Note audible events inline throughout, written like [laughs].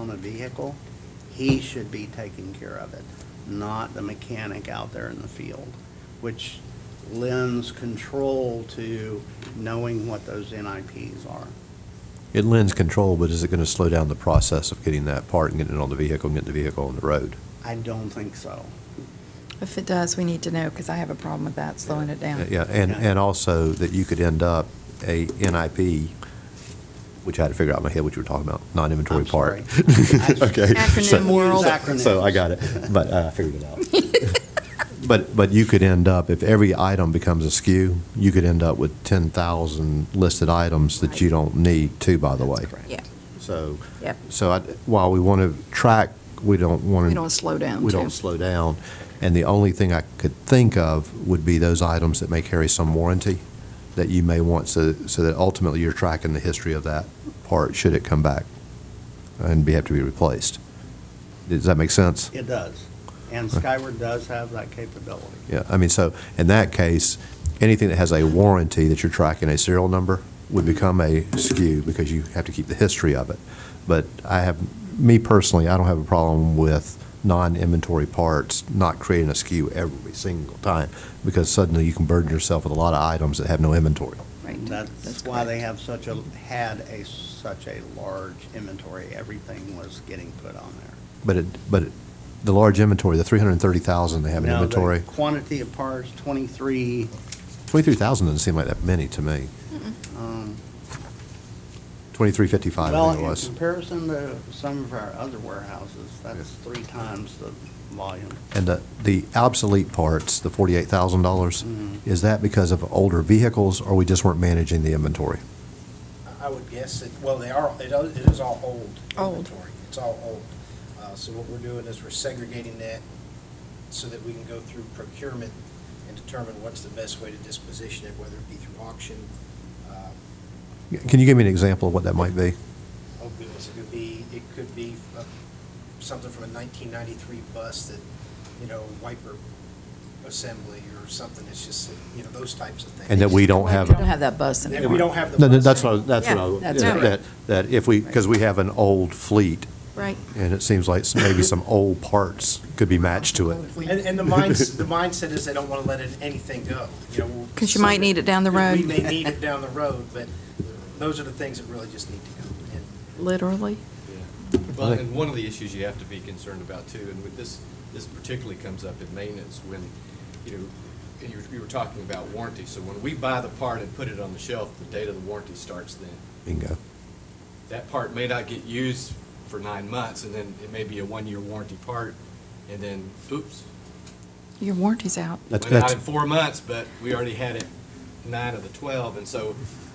on a vehicle, he should be taking care of it, not the mechanic out there in the field, which lends control to knowing what those NIPs are. It lends control, but is it going to slow down the process of getting that part and getting it on the vehicle and getting the vehicle on the road? I don't think so. If it does, we need to know, because I have a problem with that, slowing it down. Yeah, and, and also that you could end up a NIP, which I had to figure out in my head what you were talking about, non-inventory I'm part. [laughs] sorry. I- Okay. so- [laughs] Acronym world. Acronyms. So I got it, but uh, I figured it out. [laughs] But, but you could end up, if every item becomes a SKU, you could end up with 10,000 listed items that you don't need to, by the way. Yeah, So, Yep. so I, while we want to track, we don't want to. We don't slow down, We too. don't slow down. And the only thing I could think of would be those items that may carry some warranty that you may want, so, so that ultimately you're tracking the history of that part, should it come back and be, have to be replaced. Does that make sense? It does. And Skyward does have that capability. Yeah, I mean, so, in that case, anything that has a warranty that you're tracking a serial number would become a SKU because you have to keep the history of it. But I have, me personally, I don't have a problem with non-inventory parts not creating a SKU every single time because suddenly you can burden yourself with a lot of items that have no inventory. right. That's why they correct. have such a, had a, such a large inventory. Everything was getting put on there. But it, but it- the large inventory, the 330,000 they have in Now, the inventory, Quantity of parts, 23, 23,000 doesn't seem like that many to me. um, 2355, I Well, think it in was. comparison to some of our other warehouses, that's three times the volume. And the, the obsolete parts, the forty-eight thousand dollars, is that because of older vehicles, or we just weren't managing the inventory? I would guess it, well, they are, it is- it is all old Old. inventory. It's all old. Uh, So what we're doing is we're segregating that so that we can go through procurement and determine what's the best way to disposition it, whether it be through auction. uh, Can you give me an example of what that might be? Oh goodness, it could be, it could be uh, something from a 1993 bus that, you know, wiper assembly or something. It's just, you know, those types of things. And that we don't We have. don't have that bus That anymore. we don't have the. No, no, bus that's what, I anymore. was- that's what I, Yeah, was- that's yeah, right. that, that if we, because we have an old fleet, Right. and it seems like maybe some old parts could be matched to it. [laughs] And, and the mindset, the mindset is they don't want to let it- anything go, you know. we'll- 'Cause you might need it down the We road. may [laughs] need it down the road, but those are the things that really just need to go. And Literally. Well, I think- and one of the issues you have to be concerned about too, and with this, this particularly comes up in maintenance when, you know, and you, were- you were talking about warranty, so when we buy the part and put it on the shelf, the date of the warranty starts then. Bingo. That part may not get used for nine months, and then it may be a one-year warranty part, and then, oops, Your warranty's out. That's- went out that's- in four months, but we already had it nine of the 12, and so,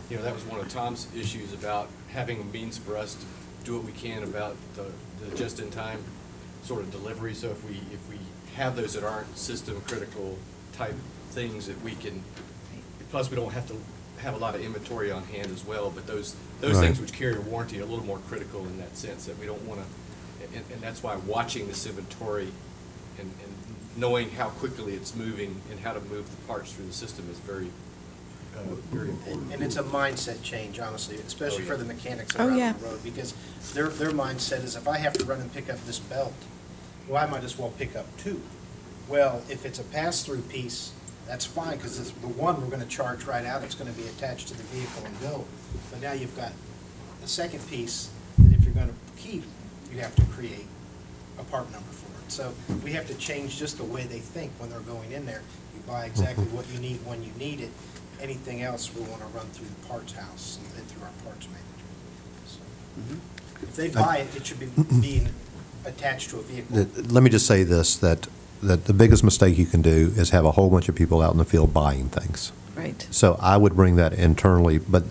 you know, that was one of Tom's issues about having a means for us to do what we can about the the just-in-time sort of delivery, so if we, if we have those that aren't system-critical type things that we can, plus we don't have to have a lot of inventory on hand as well, but those, those Right. things which carry a warranty are a little more critical in that sense, that we don't want to, and, and that's why watching this inventory and, and knowing how quickly it's moving and how to move the parts through the system is very, uh, very important. and- and it's a mindset change, honestly, especially Oh, for yeah. the mechanics Oh, that are out yeah. on the road. Because their, their mindset is if I have to run and pick up this belt, well, I might as well pick up two. Well, if it's a pass-through piece, that's fine, because the one we're going to charge right out, it's going to be attached to the vehicle and go. But now you've got the second piece that if you're going to keep, you have to create a part number for it. So we have to change just the way they think when they're going in there. You buy exactly what you need when you need it. Anything else, we want to run through the parts house and- and through our parts manager. So If they buy it, it should be being attached to a vehicle. That- Let me just say this, that, that the biggest mistake you can do is have a whole bunch of people out in the field buying things. Right. So I would bring that internally, but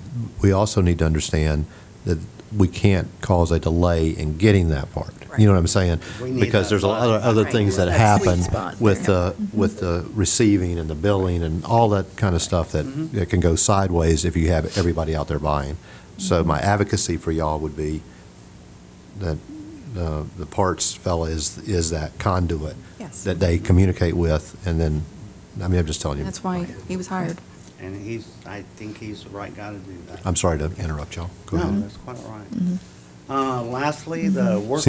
we also need to understand that we can't cause a delay in getting that part. You know what I'm saying? We need Because that there's a lot of button. other Right, things that that sweet happen spot. Mm-hmm. with the, with the receiving and the billing and all that kind of stuff that, Mm-hmm. that can go sideways if you have everybody out there buying. Mm-hmm. So my advocacy for y'all would be that uh, the parts fella is, is that conduit Yes. that they communicate with, and then, I mean, I'm just telling you. That's why he was hired. And he's, I think he's the right guy to do that. I'm sorry to interrupt y'all. Go No, ahead. that's quite all right. Uh, Lastly, the work